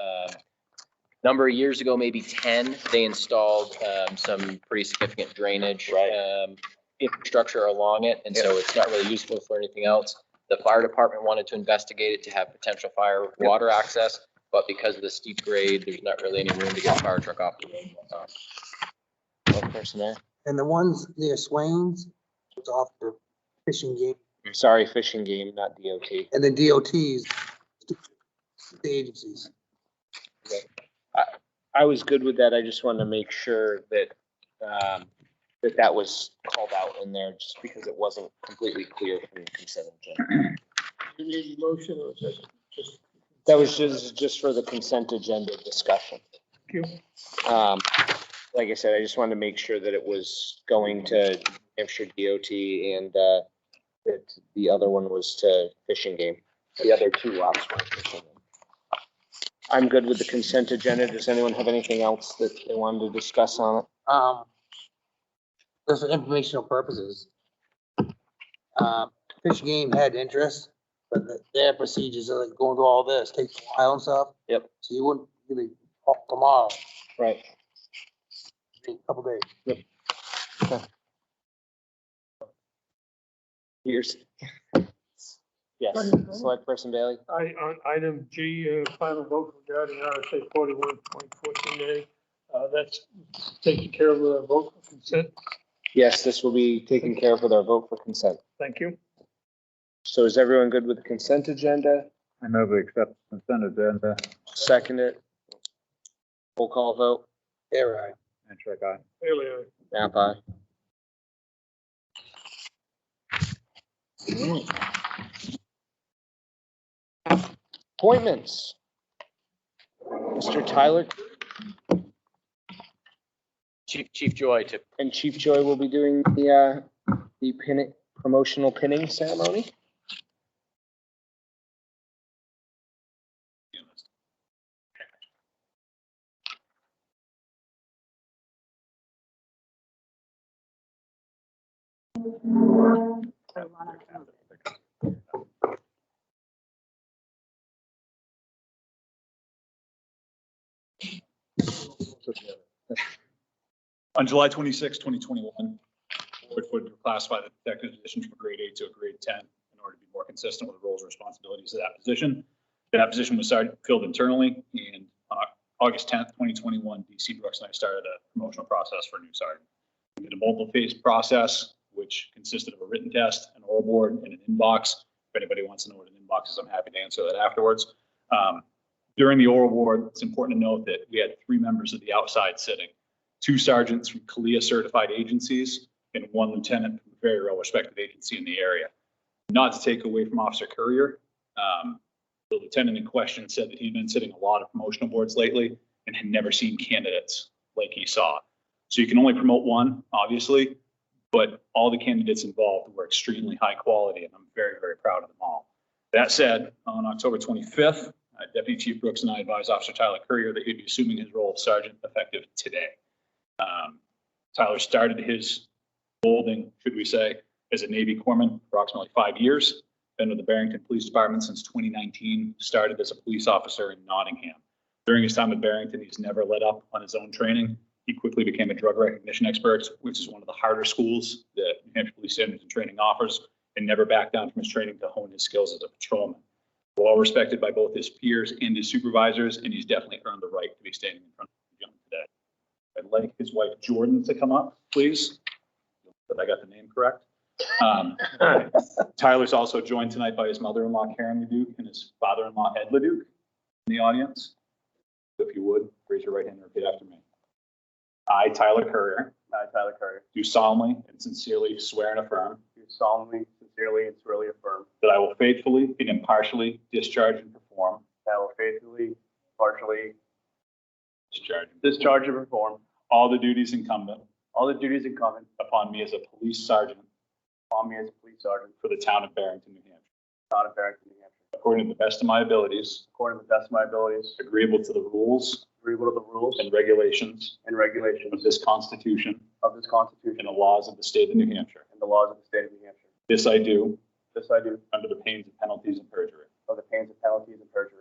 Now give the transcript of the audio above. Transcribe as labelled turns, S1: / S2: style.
S1: um, number of years ago, maybe 10, they installed um, some pretty significant drainage
S2: Right.
S1: um, infrastructure along it, and so it's not really useful for anything else. The fire department wanted to investigate it to have potential fire water access, but because of the steep grade, there's not really any room to get a fire truck off. the road. Um, One person there.
S3: And the ones near Swains, it's off the fishing game,
S2: Sorry, fishing game, not DOT.
S3: and the DOTs, the agencies.
S2: I was good with that. I just wanted to make sure that, um, that that was called out in there just because it wasn't completely clear from the consent agenda.
S4: You need a motion or is it just?
S2: That was just, just for the consent agenda discussion.
S4: Thank you.
S2: Um, like I said, I just wanted to make sure that it was going to Hampshire DOT and, uh, that the other one was to fishing game. The other two lots were fishing. game. I'm good with the consent agenda. Does anyone have anything else that they wanted to discuss on it?
S3: Um, just for informational purposes. Um, Fish game had interest, but the- their procedures are like going through all this, takes a while and stuff.
S2: Yep.
S3: So you wouldn't, you'd be off tomorrow,
S2: Right.
S3: a couple days.
S2: Here's. Yes, select person Bailey.
S4: I, on item G, uh, final vote regarding RSA forty-one point fourteen A. Uh, that's taking care of the vote for consent.
S2: Yes, this will be taken care of with our vote for consent.
S4: Thank you.
S2: So is everyone good with the consent agenda?
S5: I move we accept consent agenda.
S2: Second it. Roll call vote.
S3: Air ride.
S5: And check aye.
S4: Bailey,
S2: Nap aye. Appointments. Mr. Tyler
S1: Chief, Chief Joy to
S2: and Chief Joy will be doing the, uh, the pinning, promotional pinning ceremony.
S6: On July 26, 2021, board would classify the detective position from a grade eight to a grade 10 in order to be more consistent with the roles and responsibilities of that position. That position was started, filled internally, and on Au- August 10th, 2021, DC Brooks and I started a promotional process for a new sergeant. We did a multiple-phase process, which consisted of a written test, an oral board, and an inbox. If anybody wants to know what an inbox is, I'm happy to answer that afterwards. Um, During the oral board, it's important to note that we had three members of the outside sitting two sergeants from Kalia certified agencies and one lieutenant from a very well respected agency in the area. Not to take away from Officer Courier, um, the lieutenant in question said that he'd been sitting a lot of promotional boards lately and had never seen candidates like he saw. So you can only promote one, obviously, but all the candidates involved were extremely high quality and I'm very, very proud of them all. That said, on October 25th, uh, Deputy Chief Brooks and I advised Officer Tyler Courier that he'd be assuming his role of sergeant effective today. Um, Tyler started his holding, should we say, as a Navy corpsman approximately five years. Been with the Barrington Police Department since 2019, started as a police officer in Nottingham. During his time at Barrington, he's never let up on his own training. He quickly became a drug recognition expert, which is one of the harder schools that New Hampshire Police Standards and Training offers, and never backed down from his training to hone his skills as a patrolman. Well respected by both his peers and his supervisors, and he's definitely earned the right to be standing in front of the young today. I'd like his wife Jordan to come up, please. That I got the name correct. Um, Tyler's also joined tonight by his mother-in-law Karen Leduc and his father-in-law Ed Leduc in the audience. If you would, raise your right hand and repeat after me. I, Tyler Courier,
S7: I, Tyler Carter,
S6: do solemnly and sincerely swear and affirm
S7: do solemnly, sincerely, and truly affirm
S6: that I will faithfully and impartially discharge and perform,
S7: that I will faithfully, partially
S6: discharge, and perform
S7: discharge and perform
S6: all the duties incumbent
S7: all the duties incumbent
S6: upon me as a police sergeant
S7: upon me as a police sergeant
S6: for the town of Barrington, New Hampshire,
S7: for the town of Barrington, New Hampshire,
S6: according to the best of my abilities,
S7: according to the best of my abilities,
S6: agreeable to the rules
S7: agreeable to the rules
S6: and regulations
S7: and
S6: of
S7: regulations
S6: this Constitution
S7: of this Constitution
S6: and the laws of the state of New Hampshire.
S7: and the laws of the state of New Hampshire.
S6: This I do
S7: This I do
S6: under the pains and penalties of perjury.
S7: under the pains of penalties and perjury.